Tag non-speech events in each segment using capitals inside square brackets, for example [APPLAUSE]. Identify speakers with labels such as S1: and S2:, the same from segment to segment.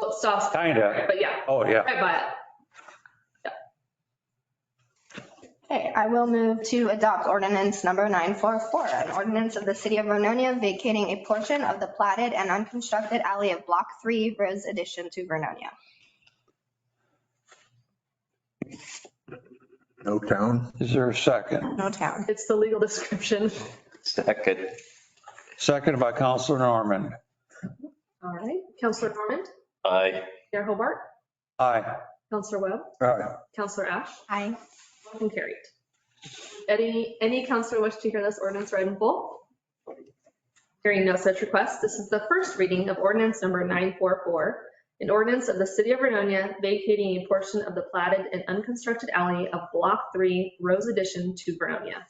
S1: Well, it's off,
S2: Kinda.
S1: but yeah,
S2: Oh, yeah.
S1: right by it.
S3: Okay, I will move to adopt ordinance number 944, an ordinance of the city of Vernonia vacating a portion of the platted and unconstructed alley of Block 3, Rose addition to Vernonia.
S4: No town?
S2: Is there a second?
S3: No town.
S1: It's the legal [LAUGHS] description.
S5: Second.
S2: Second by Counselor Norman.
S1: All right. Counselor Norman,
S5: Aye.
S1: Mayor Hobart,
S2: Aye.
S1: Counselor Webb,
S2: Aye.
S1: Counselor Ash,
S3: Aye.
S1: motion carried. Any, any counselor wish to hear this ordinance read in full? Hearing no such request, this is the first reading of ordinance number 944, an ordinance of the city of Vernonia vacating a portion of the platted and unconstructed alley of Block 3, Rose Addition to Vernonia.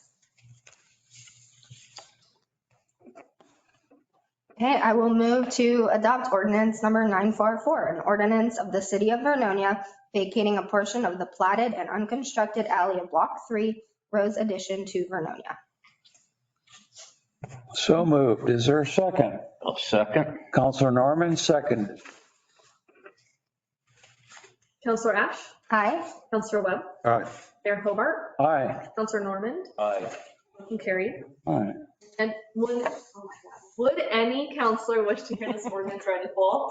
S3: Okay, I will move to adopt ordinance number 944, an ordinance of the city of Vernonia vacating a portion of the platted and unconstructed alley of Block 3, Rose addition to Vernonia.
S2: So moved. Is there a second?
S5: I'll second.
S2: Counselor Norman, second.
S1: Counselor Ash,
S3: Aye.
S1: Counselor Webb,
S2: Aye.
S1: Mayor Hobart,
S2: Aye.
S1: Counselor Normand,
S5: Aye.
S1: motion carried.
S2: Aye.
S1: And would, oh my God, would any counselor wish to hear this ordinance read in full?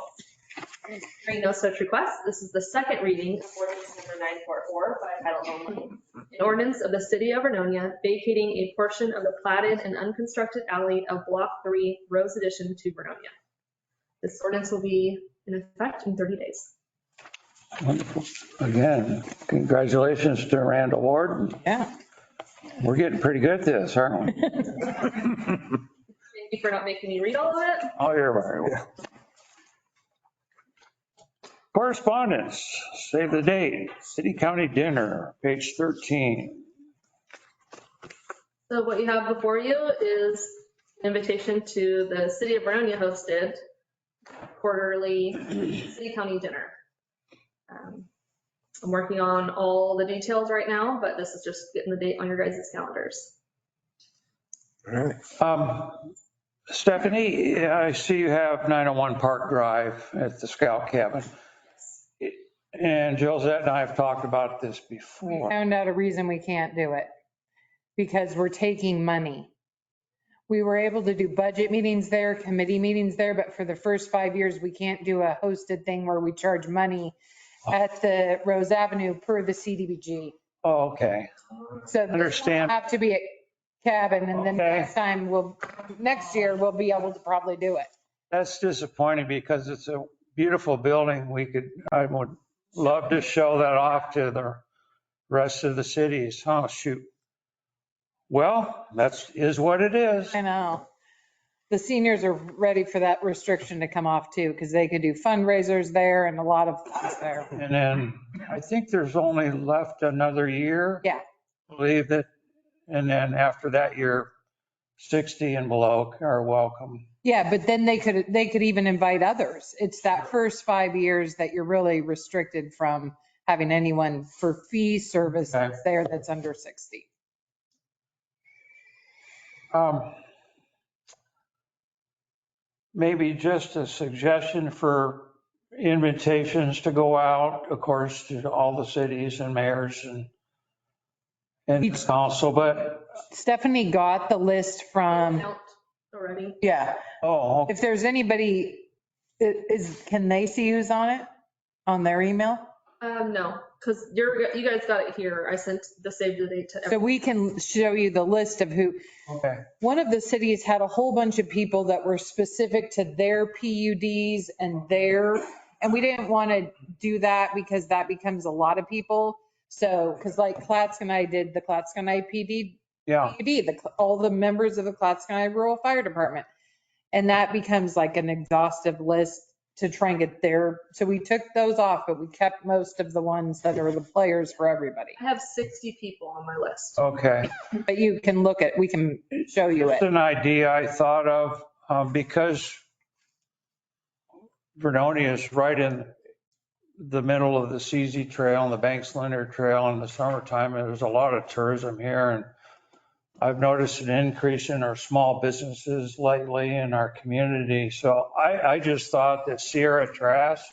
S1: Hearing no such request, this is the second reading of ordinance number 944 by title only. An ordinance of the city of Vernonia vacating a portion of the platted and unconstructed alley of Block 3, Rose Addition to Vernonia. This ordinance will be in effect in 30 days.
S2: Wonderful. Again, congratulations to Randall Ward.
S6: Yeah.
S2: We're getting pretty good at this, aren't we?
S1: Thank you for not making me read all of it.
S2: [LAUGHS] Oh, you're very well. Correspondence, save the date, city county dinner, page 13.
S1: So what you have before you is invitation to the city of Vernonia hosted quarterly city county dinner. Um, I'm working on all the details right now, but this is just getting the date on your guys' calendars.
S4: All right.
S2: Um, Stephanie, I see you have 901 Park Drive at the Scout Cabin. And Josette and I have talked about this before.
S6: Found out a reason we can't do it because we're taking money. We were able to do budget meetings there, committee meetings there, but for the first five years, we can't do a hosted thing where we charge money at the Rose Avenue per the CDBG.
S2: Oh, Okay,
S6: So this will
S2: Understand.
S6: Have to be at cabin and then
S2: Okay.
S6: next time we'll, next year, we'll be able to probably do it.
S2: that's disappointing because it's a beautiful building. We could, I would love to show that off to the rest of the cities. Oh, shoot. Well, that's, is what it is.
S6: I know. The seniors are ready for that restriction to come off too, because they could do fundraisers there and a lot of things there.
S2: And then I think there's only left another year.
S6: Yeah.
S2: Believe it. And then after that year, 60 and below are welcome.
S6: Yeah, but then they could, they could even invite others. It's that first five years that you're really restricted from having anyone for fee service
S2: Okay.
S6: that's there that's under 60.
S2: Um, Maybe just a suggestion for invitations to go out, of course, to all the cities and mayors and and
S6: Each-
S2: council, but,
S6: Stephanie got the list from,
S1: Out Already.
S6: yeah,
S2: oh,
S6: if there's anybody, i- is, can they see who's on it? On their email?
S1: Um, no, because you're, you guys got it here. I sent the save the date to
S6: So
S1: everyone.
S6: we can show you the list of who,
S2: okay.
S6: one of the cities had a whole bunch of people that were specific to their PUDs and their, and we didn't want to do that because that becomes a lot of people. So, because like Clatskanie and I did the Clatskanie and I PD,
S2: Yeah,
S6: PUD, the, all the members of the Clatskanie and I Rural Fire Department. And that becomes like an exhaustive list to try and get their, so we took those off, but we kept most of the ones that are the players for everybody.
S1: I have 60 people on my list.
S2: okay.
S6: But you can look at, we can show you it.
S2: Just an idea I thought of, um, because Vernonia is right in the middle of the CZ Trail and the Banks Linear Trail in the summertime, and there's a lot of tourism here, and I've noticed an increase in our small businesses lately in our community, so I, I just thought that Sierra Trask